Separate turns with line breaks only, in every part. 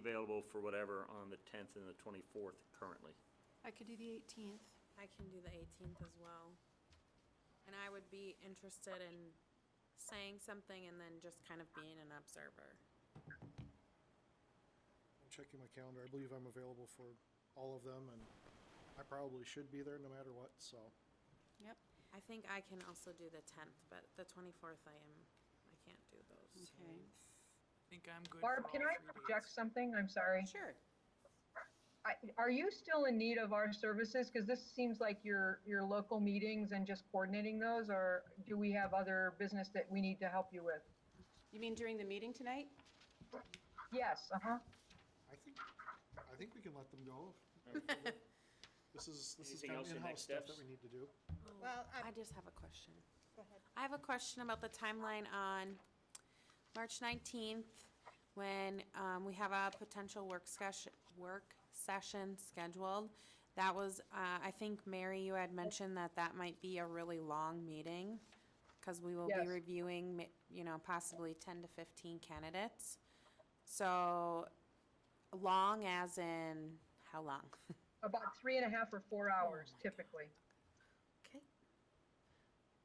available for whatever on the tenth and the twenty-fourth currently.
I could do the eighteenth.
I can do the eighteenth as well. And I would be interested in saying something and then just kind of being an observer.
I'm checking my calendar. I believe I'm available for all of them, and I probably should be there no matter what, so.
Yep,
I think I can also do the tenth, but the twenty-fourth I am, I can't do those.
okay.
I think I'm good. for
Barb, can
all
I
three dates.
project something? I'm sorry.
Sure.
I- Are you still in need of our services? Because this seems like your, your local meetings and just coordinating those, or do we have other business that we need to help you with?
You mean during the meeting tonight?
Yes, uh-huh.
I think, I think we can let them go. This is, this is
Anything
kind
else
of
in
in-house
next
stuff that
steps?
we need to do.
Oh.
Well, I-
I just have a question.
Go ahead.
I have a question about the timeline on March nineteenth, when, um, we have a potential work session, work session scheduled. That was, uh, I think, Mary, you had mentioned that that might be a really long meeting, because we will be
Yes.
reviewing, mi- you know, possibly ten to fifteen candidates. So, long as in, how long?
About three and a half or four hours typically.
Okay.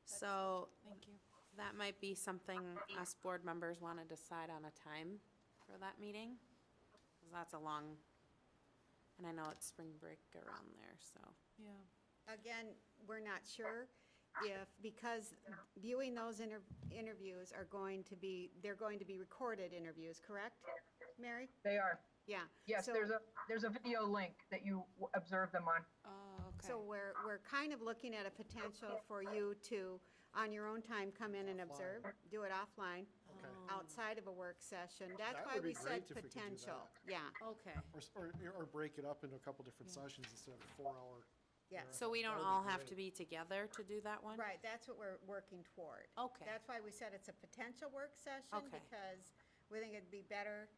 So,
Thank you.
That might be something us board members want to decide on a time for that meeting, 'cause that's a long, and I know it's spring break around there, so.
Yeah.
again, we're not sure if, because viewing those inter- interviews are going to be, they're going to be recorded interviews, correct? Mary?
They are.
Yeah.
Yes,
So-
there's a, there's a video link that you w- observe them on.
Oh,
So
okay.
we're, we're kind of looking at a potential for you to, on your own time, come in and observe, do it offline,
Okay.
outside of a work session. That's
That
why
would be
we said
great if we could do
potential.
that.
Yeah,
Okay.
Or, s- or, or break it up into a couple different sessions instead of a four-hour.
yeah.
So we don't
That would
all
be
have to
great.
be together to do that one?
Right, that's what we're working toward.
Okay.
That's why we said it's a potential work session,
Okay.
because we think it'd be better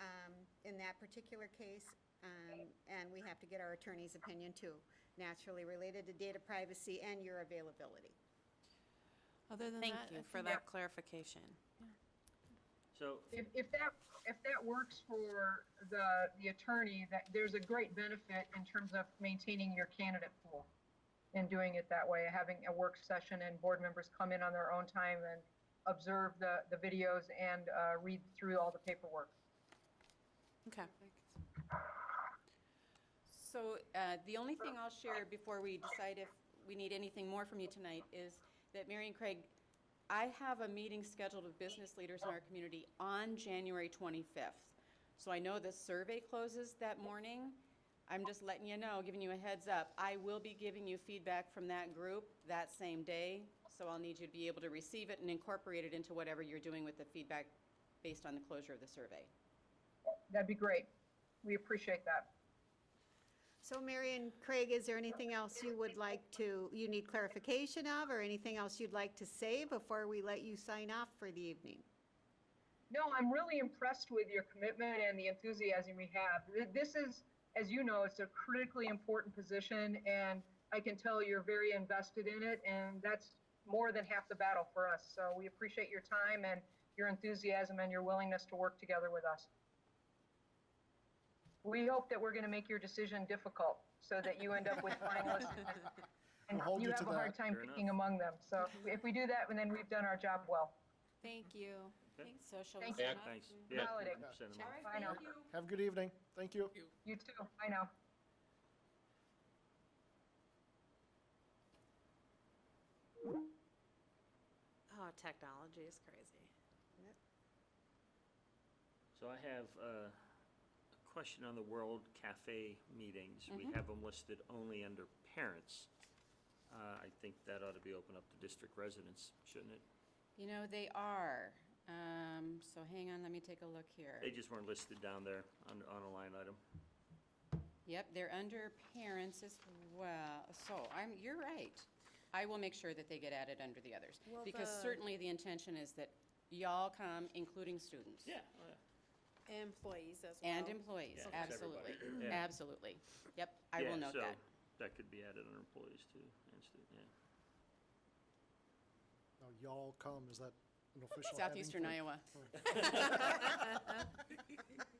um, in that particular case, um, and we have to get our attorney's opinion too, naturally related to data privacy and your availability.
Other than that.
Thank
I
you for
think-
that clarification.
So,
If, if that, if that works for the, the attorney, that, there's a great benefit in terms of maintaining your candidate pool and doing it that way, having a work session and board members come in on their own time and observe the, the videos and, uh, read through all the paperwork.
Okay.
So uh, the only thing I'll share before we decide if we need anything more from you tonight is that Mary and Craig, I have a meeting scheduled with business leaders in our community on January 25th. So I know the survey closes that morning. I'm just letting you know, giving you a heads up. I will be giving you feedback from that group that same day, so I'll need you to be able to receive it and incorporate it into whatever you're doing with the feedback based on the closure of the survey.
That'd be great. We appreciate that.
So Mary and Craig, is there anything else you would like to, you need clarification of, or anything else you'd like to say before we let you sign off for the evening?
No, I'm really impressed with your commitment and the enthusiasm we have. Th- This is, as you know, it's a critically important position, and I can tell you're very invested in it, and that's more than half the battle for us. So we appreciate your time and your enthusiasm and your willingness to work together with us. We hope that we're going to make your decision difficult so that you end up with finalists and
We'll hold
you
you to
have a hard
that.
time
Fair enough.
picking among them. So if we do that, then we've done our job well.
Thank you.
Thanks, so shall we
Thank
yeah,
sign off?
thanks. Yeah,
Holiday.
100% I'm-
All right,
Bye now.
thank you.
Have a good evening. Thank you.
You too. I know.
Oh, technology is crazy.
So I have uh, a question on the World Cafe meetings. We
Mm-hmm.
have them listed only under parents. Uh, I think that ought to be open up to district residents, shouldn't it?
You know, they are. Um, so hang on, let me take a look here.
They just weren't listed down there on, on a line item.
Yep, they're under parents as well. So I'm, you're right. I will make sure that they get added under the others.
Well,
Because
the-
certainly the intention is that y'all come, including students.
Employees as well.
And employees,
Yeah, it's
absolutely,
everybody. Yeah.
absolutely. Yep, I
Yeah,
will note
so
that.
That could be added under employees too, and stu- yeah.
Now, y'all come, is that an official heading
Southeastern
for-
Iowa.